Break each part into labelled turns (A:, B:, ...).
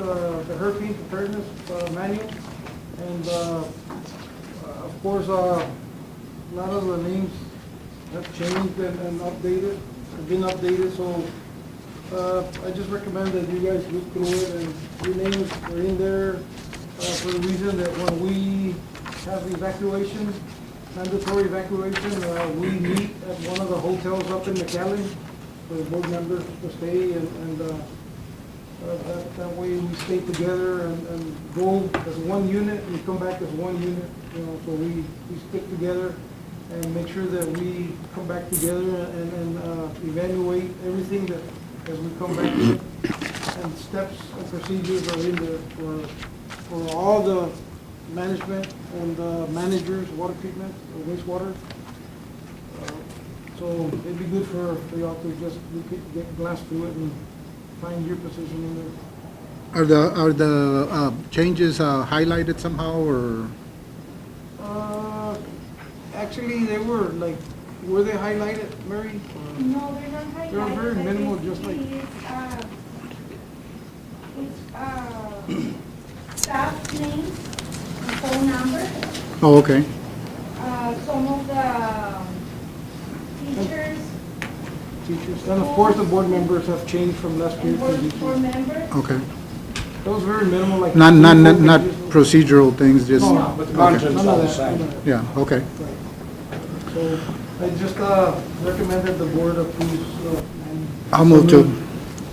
A: uh, the hurricane preparedness uh, manual. And uh, uh, of course, uh, a lot of the names have changed and and updated, have been updated, so uh, I just recommend that you guys look through it and your names are in there uh, for the reason that when we have evacuation, mandatory evacuation, uh, we meet at one of the hotels up in McAllen for the board members to stay and, and uh, uh, That that way we stay together and and go as one unit, and come back as one unit, you know, so we, we stick together and make sure that we come back together and, and uh, evaluate everything that, as we come back. And steps and procedures are in there for, for all the management and uh, managers, water treatment, uh, wastewater. Uh, So it'd be good for, for y'all to just look at- get glass through it and find your position in there.
B: Are the, are the uh, changes uh, highlighted somehow, or?
A: Uh, Actually, they were, like, were they highlighted, Mary? Or-
C: No, they're not highlighted.
A: They're very
C: but
A: minimal,
C: it's-
A: just like-
C: It's, uh, it's, uh, staff name, and phone number,
B: Oh, okay.
C: uh, some of the um, teachers
A: Teachers, and of course, the board members have changed from last year
C: and
A: to
C: board,
A: this
C: board
A: year.
C: members.
B: Okay.
A: That was very minimal, like.
B: Not, not, not not
A: No,
B: procedural things, just?
A: No,
D: But the
B: Okay.
D: content's
A: none
D: all the
A: of that,
D: same.
A: none of that.
B: Yeah, okay.
A: Right. So I just uh, recommend that the board approves. uh, and-
B: I'll move to,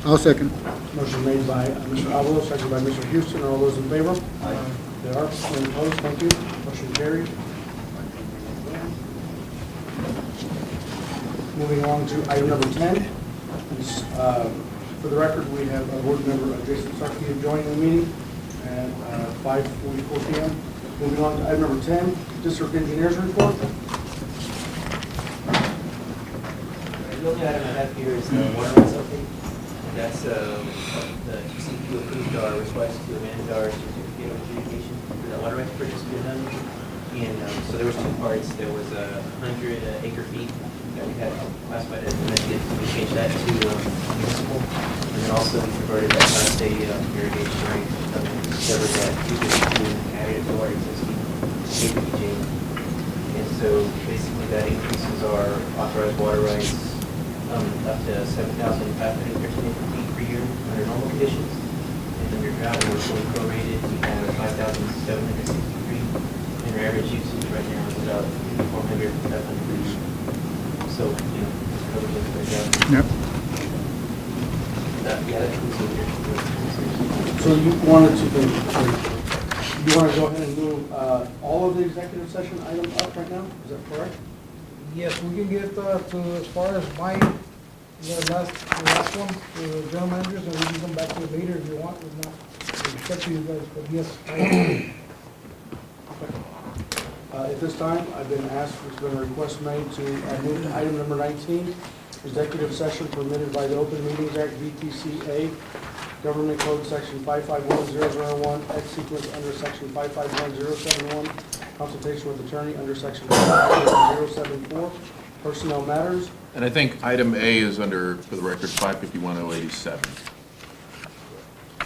B: I'll second.
D: Motion made by uh, Mr. Alvarado, seconded by Mr. Houston. All those in favor? Aye. There are, none opposed, thank you. Motion carried. Moving on to item number 10. It's, uh, For the record, we have a board member, uh, Jason Sarkey, joining the meeting at uh, 5:44 PM. Moving on to item number 10, district engineers report.
E: The only item I have here is the water rights update. That's, um, the TCQ approved our request to amend our certificate of adjudication for the water rights purchase we had done. And, um, so there was two parts. There was a hundred uh, acre feet that we had classified as amended. We changed that to um, municipal. And then also we converted that last day um, irrigation rate, um, that was at two fifty-two, added to our existing APJ. And so basically that increases our authorized water rights um, up to 7,513 feet per year under normal conditions. And under drought, we're fully prorated, we have 5,763. And our average usage right now is about 400, 500. So, you know, it's covered in the drought.
B: Yep.
E: That- Yeah, that concludes
D: So you wanted to, you want to go ahead and move uh, all of the executive session items up right now? Is that correct?
A: Yes, we can get uh, to as far as my, the last, the last one, the general managers, and we can come back to it later if you want, if not, it's up to you guys, but yes. I-
D: Uh, At this time, I've been asked, there's been a request made to uh, move to item number 19, executive session permitted by the Open Meetings Act, VTCA, Government Code Section 551001, X sequence under Section 551071, consultation with attorney under Section 551074, personnel matters.
F: And I think item A is under, for the record, 551087.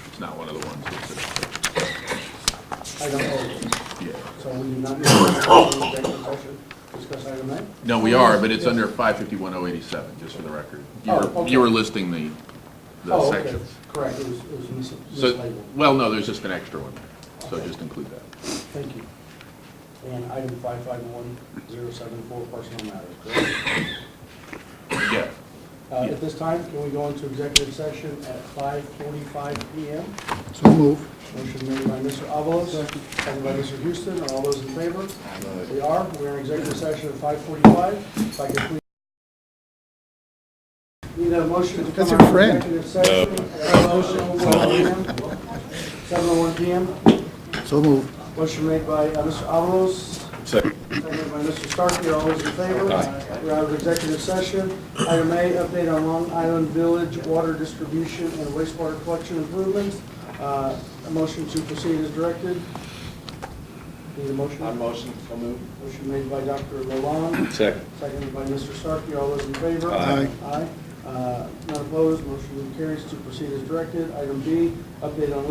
F: It's not one of the ones that's,
D: Item O.
F: yeah.
D: So we do not need to executive session, discuss item A?
F: No, we are, but it's under 551087, just for the record. You
D: Oh,
F: were,
D: okay.
F: you were listing the, the
D: Oh, okay.
F: sections.
D: Correct, it was, it was mis-
F: So,
D: mislabeled.
F: well, no, there's just an extra one, so just include that.
D: Thank you. And item 551074, personal matters, correct?
F: Yeah.
D: Uh, At this time, can we go into executive session at 5:45 PM?
B: So move.
D: Motion made by Mr. Avalos, seconded by Mr. Houston. Are all those in favor? We are, we're in executive session at 5:45. If I could please... Need a motion to
B: That's
D: come
B: your
D: out of
B: friend.
D: executive session at 7:01 7:01 PM.
B: So move.
D: Motion made by uh, Mr. Avalos, Seconded by Mr. Starkey, all those in favor? We're out of executive session. Item A, update on Long Island Village water distribution and wastewater collection improvements. Uh, A motion to proceed is directed. Need a motion? I motion, so move. Motion made by Dr. Lalonde. Second. Seconded by Mr. Starkey, all those in favor?
B: Aye.
D: Aye. Uh, Not opposed, motion carries to proceed as directed. Item B, update on